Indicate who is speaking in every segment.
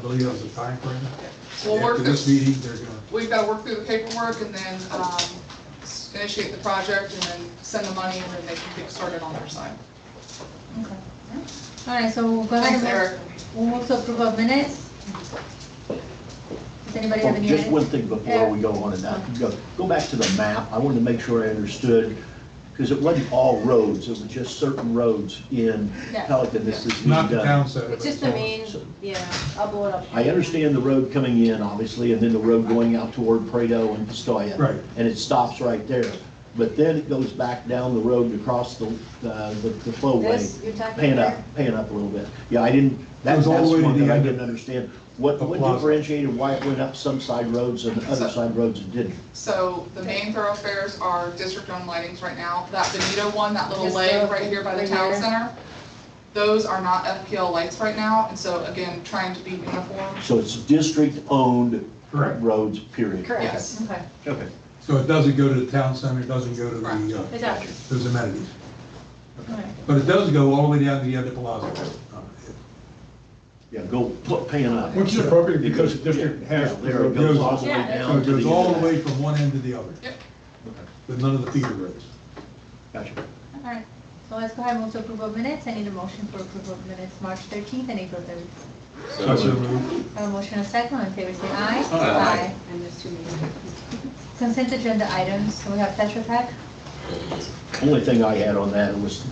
Speaker 1: believe that was the timeframe.
Speaker 2: We'll work
Speaker 1: After this
Speaker 2: through,
Speaker 1: meeting, they're gonna,
Speaker 2: we've got to work through the paperwork and then um, initiate the project and then send the money and then they can get started on their side.
Speaker 3: Okay. All right, so we'll go ahead
Speaker 2: Thanks,
Speaker 3: and
Speaker 2: Eric.
Speaker 3: we'll move to approve of minutes. Does anybody have
Speaker 4: Oh,
Speaker 3: any?
Speaker 4: Just one
Speaker 3: edits?
Speaker 4: thing before we go on and that, go, go back to the map, I wanted to make sure I understood, because it wasn't all roads, it was just certain roads in
Speaker 3: Yeah.
Speaker 4: Pelican this is being
Speaker 1: not the
Speaker 4: done.
Speaker 1: town side. but
Speaker 5: It's just the
Speaker 1: all-
Speaker 5: main, yeah, I'll blow it up.
Speaker 4: I understand the road coming in, obviously, and then the road going out toward Prado and Pistoia.
Speaker 1: Right.
Speaker 4: And it stops right there, but then it goes back down the road and across the, uh, the the
Speaker 5: This,
Speaker 4: flowway,
Speaker 5: you're talking
Speaker 4: paying up,
Speaker 5: there?
Speaker 4: paying up a little bit. Yeah, I didn't,
Speaker 1: It
Speaker 4: that-
Speaker 1: was
Speaker 4: that's
Speaker 1: all the way to
Speaker 4: one
Speaker 1: the
Speaker 4: that I
Speaker 1: end of
Speaker 4: didn't understand. What,
Speaker 1: the
Speaker 4: what
Speaker 1: plaza.
Speaker 4: differentiated why it went up some side roads and other side roads it didn't?
Speaker 2: So the main thoroughfares are district-owned lightings right now. That Benito one, that little
Speaker 5: Just
Speaker 2: leg
Speaker 5: the-
Speaker 2: right here by the
Speaker 5: right
Speaker 2: town
Speaker 5: here.
Speaker 2: center, those are not FPL lights right now. And so again, trying to be uniform.
Speaker 4: So it's district-owned
Speaker 1: Correct.
Speaker 4: roads, period?
Speaker 5: Correct,
Speaker 2: Yes.
Speaker 5: okay.
Speaker 4: Okay.
Speaker 1: So it doesn't go to the town center, it doesn't go to
Speaker 2: Right.
Speaker 1: the, uh,
Speaker 5: It's out.
Speaker 1: those amenities.
Speaker 3: All right.
Speaker 1: But it does go all the way down to the end of Uh, Plaza.
Speaker 4: Yeah, go put pan up.
Speaker 6: Which is appropriate because the
Speaker 4: It goes-
Speaker 6: district
Speaker 4: yeah,
Speaker 6: has-
Speaker 4: yeah, There it goes all the way
Speaker 5: Yeah,
Speaker 1: So
Speaker 4: down
Speaker 1: it
Speaker 4: to
Speaker 1: goes
Speaker 4: the.
Speaker 1: all the way from one end to the other,
Speaker 2: Yep.
Speaker 1: but none of the feeder roads.
Speaker 4: Gotcha.
Speaker 3: All right, so let's go ahead and move to approve of minutes. I need a motion for approval of minutes, March thirteenth and April third.
Speaker 1: So so moved.
Speaker 3: A motion and a second, on favor say aye.
Speaker 1: Aye.
Speaker 5: And there's two meetings.
Speaker 3: Aye. Consent agenda items, so we have Tetra Pak.
Speaker 4: Only thing I had on that was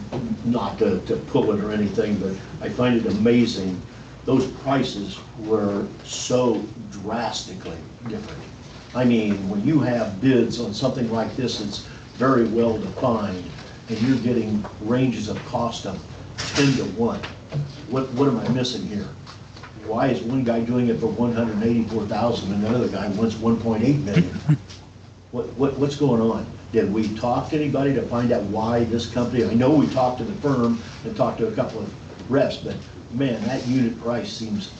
Speaker 4: not to, to pull it or anything, but I find it amazing. Those prices were so drastically different. I mean, when you have bids on something like this, it's very well defined and you're getting ranges of cost of ten to one. What, what am I missing here? Why is one guy doing it for one hundred and eighty-four thousand and another guy wants one point eight million? What, what, what's going on? Did we talk to anybody to find out why this company, I know we talked to the firm and talked to a couple of reps, but man, that unit price seems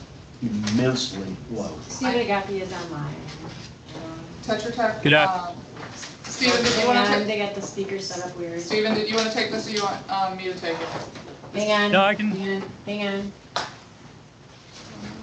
Speaker 4: immensely low.
Speaker 5: Stephen Agapi is online.
Speaker 2: Tetra Tech.
Speaker 7: Good af-
Speaker 2: um, Stephen, did you want to
Speaker 5: Hang on,
Speaker 2: take,
Speaker 5: they got the speaker set up weird.
Speaker 2: Stephen, did you want to take this or you want um, me to take it?
Speaker 5: Hang on.
Speaker 7: No, I can-
Speaker 5: Hang on, hang on.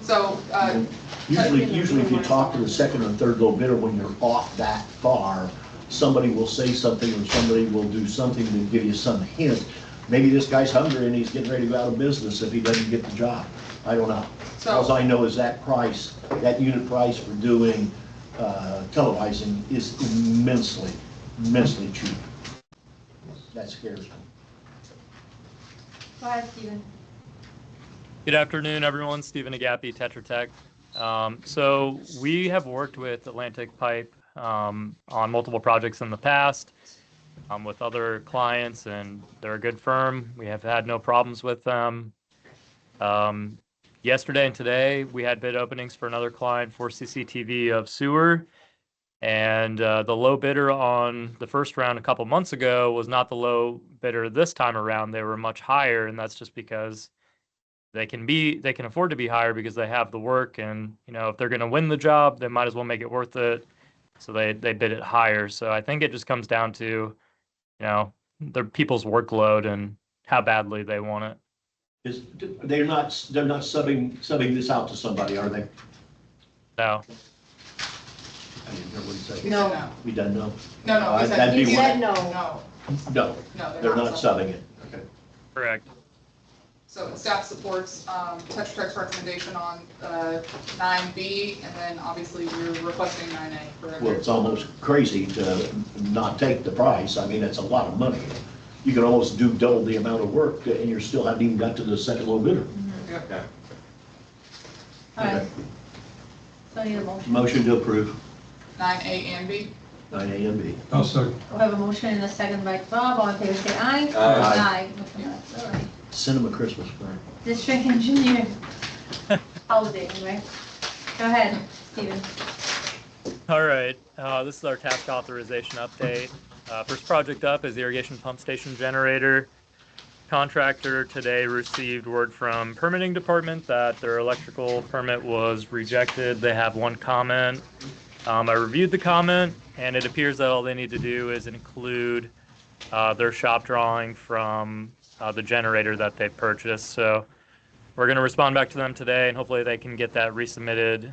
Speaker 2: So, uh,
Speaker 4: Usually, usually if you talk to the second or third low bidder, when you're off that far, somebody will say something or somebody will do something to give you some hint. Maybe this guy's hungry and he's getting ready to go out of business if he doesn't get the job. I don't know.
Speaker 2: So-
Speaker 4: Alls I know is that price, that unit price for doing uh, televising is immensely, immensely cheap. That scares me.
Speaker 3: Go ahead, Steven.
Speaker 7: Good afternoon, everyone. Stephen Agapi, Tetra Tech. Um, so we have worked with Atlantic Pipe um, on multiple projects in the past um, with other clients, and they're a good firm. We have had no problems with them. Um, yesterday and today, we had bid openings for another client for CCTV of sewer. And uh, the low bidder on the first round a couple months ago was not the low bidder this time around. They were much higher, and that's just because they can be they can afford to be higher because they have the work and you know if they're going to win the job they might as well make it worth it so they they bid it higher so i think it just comes down to you know their people's workload and how badly they want it
Speaker 4: Is, they're not, they're not subbing, subbing this out to somebody, are they?
Speaker 7: so
Speaker 4: I didn't hear what he
Speaker 2: he
Speaker 4: said.
Speaker 2: said
Speaker 5: No.
Speaker 2: no.
Speaker 4: We done know?
Speaker 2: No, no, he
Speaker 4: Uh,
Speaker 2: said,
Speaker 4: that'd
Speaker 2: he
Speaker 4: be
Speaker 2: said no.
Speaker 5: one.
Speaker 2: No,
Speaker 4: No,
Speaker 2: no,
Speaker 4: they're not subbing it. Okay.
Speaker 7: correct
Speaker 2: So staff supports um, Tetra Tech's recommendation on uh, nine B, and then obviously we're requesting nine A for
Speaker 4: Well,
Speaker 2: every.
Speaker 4: it's almost crazy to not take the price. I mean, it's a lot of money. You can almost do double the amount of work and you still haven't even got to the second low bidder.
Speaker 2: Yep.
Speaker 3: All right,
Speaker 4: Okay.
Speaker 3: so I need a motion.
Speaker 4: Motion to approve,
Speaker 2: Nine A and B.
Speaker 4: nine A and B.
Speaker 1: I'll second.
Speaker 3: We have a motion and a second by Bob, all in favor say aye.
Speaker 4: Aye.
Speaker 3: Aye. Motion passed. All right.
Speaker 4: Send them a Christmas present.
Speaker 3: District engineer. Housing, right? Go ahead, Steven.
Speaker 7: All right, uh, this is our task authorization update. Uh, first project up is irrigation pump station generator. Contractor today received word from permitting department that their electrical permit was rejected. They have one comment. Um, I reviewed the comment and it appears that all they need to do is include, uh, their shop drawing from, uh, the generator that they purchased. So We're going to respond back to them today, and hopefully they can get that resubmitted